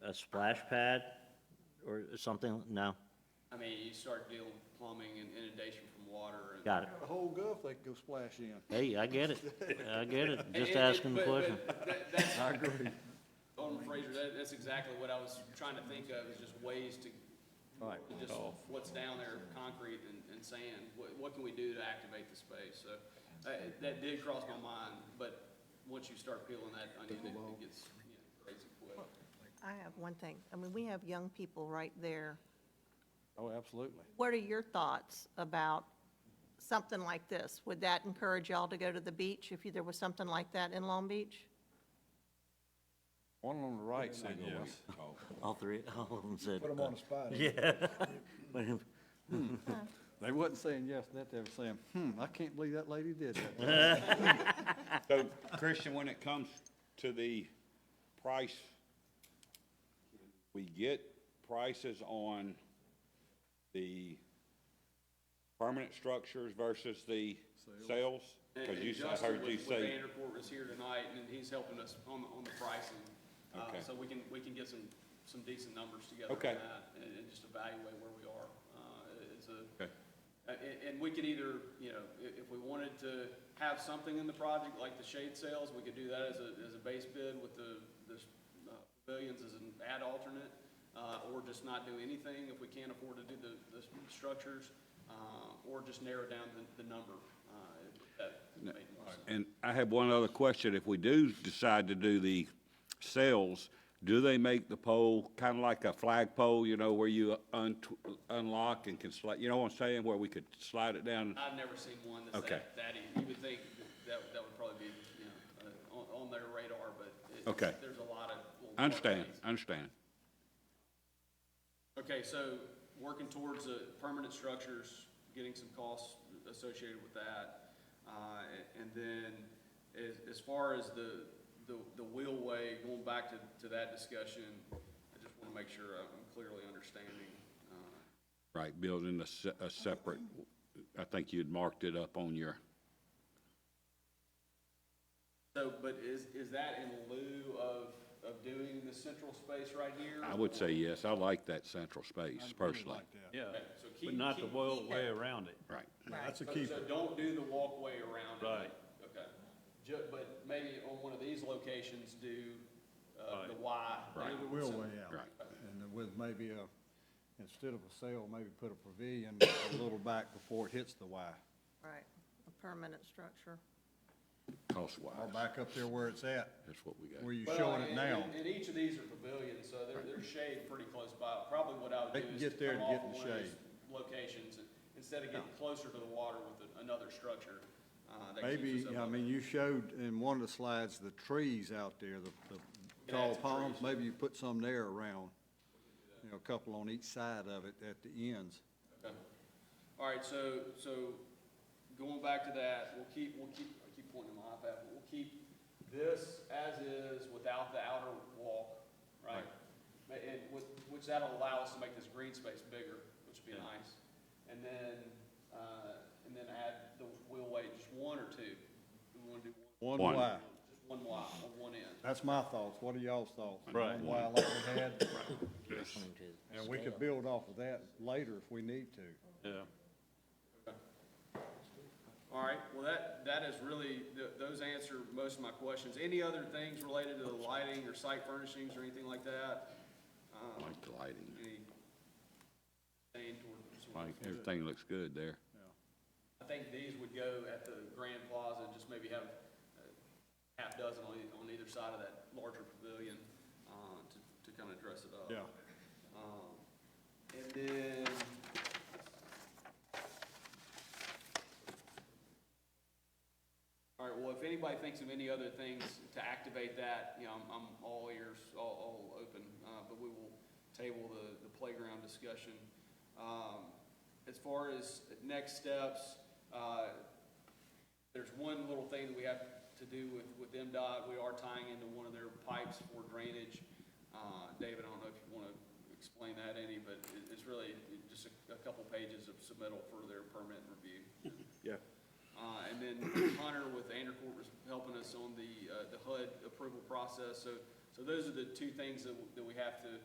a splash pad or something? No? I mean, you start dealing with plumbing and inundation from water and. Got it. The whole Gulf they could go splash in. Hey, I get it. I get it. And- Just and- and- asking the but- question. but that- that's- Alderman Fraser, that, that's exactly what I was trying to think of, is just ways to, to just what's down there, concrete and, and sand, what, what can we do to activate the space? So, uh, that did cross my mind, but once you start peeling that onion, it it gets, you know, crazy quick. I have one thing. I mean, we have young people right there. Oh, absolutely. What are your thoughts about something like this? Would that encourage y'all to go to the beach if there was something like that in Long Beach? One on the right said yes. All three, all of them said. uh, Put them on the spot. But They wasn't saying yes, that they were saying, hmm, I can't believe that lady did that. So Christian, when it comes to the price, we get prices on the permanent structures versus the sales? And- Because and you, I Justin heard you with- with say, Vanderpool was here tonight, and he's helping us on, the on the pricing. Uh, Okay. So we can, we can get some, some decent numbers together on Okay. that, and, and just evaluate where we are. Uh, it's a, Okay. Uh, And, and we could either, you know, i- if we wanted to have something in the project, like the shade sales, we could do that as a, as a base bid with the, the uh, pavilions as an ad alternate, uh, or just not do anything if we can't afford to do the, the structures, uh, or just narrow down the, the number. uh, if that made more sense. and I have one other question, if we do decide to do the sales, do they make the pole kind of like a flagpole, you know, where you un, unlock and can slide, you know what I'm saying, where we could slide it down? I've never seen one that's Okay. that, that, e- you would think that, that would probably be, you know, uh, on, on their radar, but it- Okay. there's a lot of. little I understand, parkways. I understand. Okay, so working towards the permanent structures, getting some costs associated with that. Uh, and then as, as far as the, the, the wheelway, going back to, to that discussion, I just want to make sure I'm clearly understanding. uh, Right, building a, se- a separate, I think you'd marked it up on your, So, but is, is that in lieu of, of doing the central space right here? I would say yes, I like that central space personally. Yeah, Okay, so keep- but not the keep- world keep way that. around it. Right, That's a So- keeper. So don't do the walkway around it? Right. Okay. Ju, but maybe on one of these locations, do, uh, the Right. Y. Right. do We'll some- weigh out. Right. And with maybe a, instead of a sail, maybe put a pavilion a little back before it hits the Y. Right, a permanent structure. cost-wise, Or back up there where it's at, that's what we where got. you're Well, showing it and- now. And and each of these are pavilions, so they're, they're shaded pretty close by. Probably what I would do They is. can get there come to get off in the one of these Locations, and instead of getting closer to the water with a- another structure, uh, that keeps Maybe, us I up. mean, you showed in one of the slides the trees out there, the, the Yeah, tall some palms, trees. maybe you put some there around. You know, a couple on each side of it at the ends. Okay. All right, so, so going back to that, we'll keep, we'll keep, I keep pointing my iPad, but we'll keep this as is without the outer walk, right? Ma- And which, which that'll allow us to make this green space bigger, which would be nice. And then, uh, and then add the wheelway, just one or two. Do we wanna do one? One One. Y. Just one wide, on one end. That's my thoughts. What are y'all's thoughts? Right. One Y like we had, and we could build off of that later if we need to. Yeah, All right, well, that, that is really, th- those answer most of my questions. Any other things related to the lighting or site furnishings or anything like that? I Like the lighting, Any stand toward- sort of- like, everything looks good there. I think these would go at the Grand Plaza, and just maybe have uh, half dozen on, e- on either side of that larger pavilion, uh, to, to kind of dress it up. Yeah. Um, And then. All right, well, if anybody thinks of any other things to activate that, you know, I'm, I'm all ears, all, all open, uh, but we will table the, the playground discussion. Um, as far as next steps, uh, there's one little thing that we have to do with, with MDOT. We are tying into one of their pipes for drainage. Uh, David, I don't know if you want to explain that any, but it, it's really just a, a couple pages of submittal for their permit review. Yeah. Uh, and then Hunter with Andercourt was helping us on the, uh, the HUD approval process. So, so those are the two things that, w- that we have to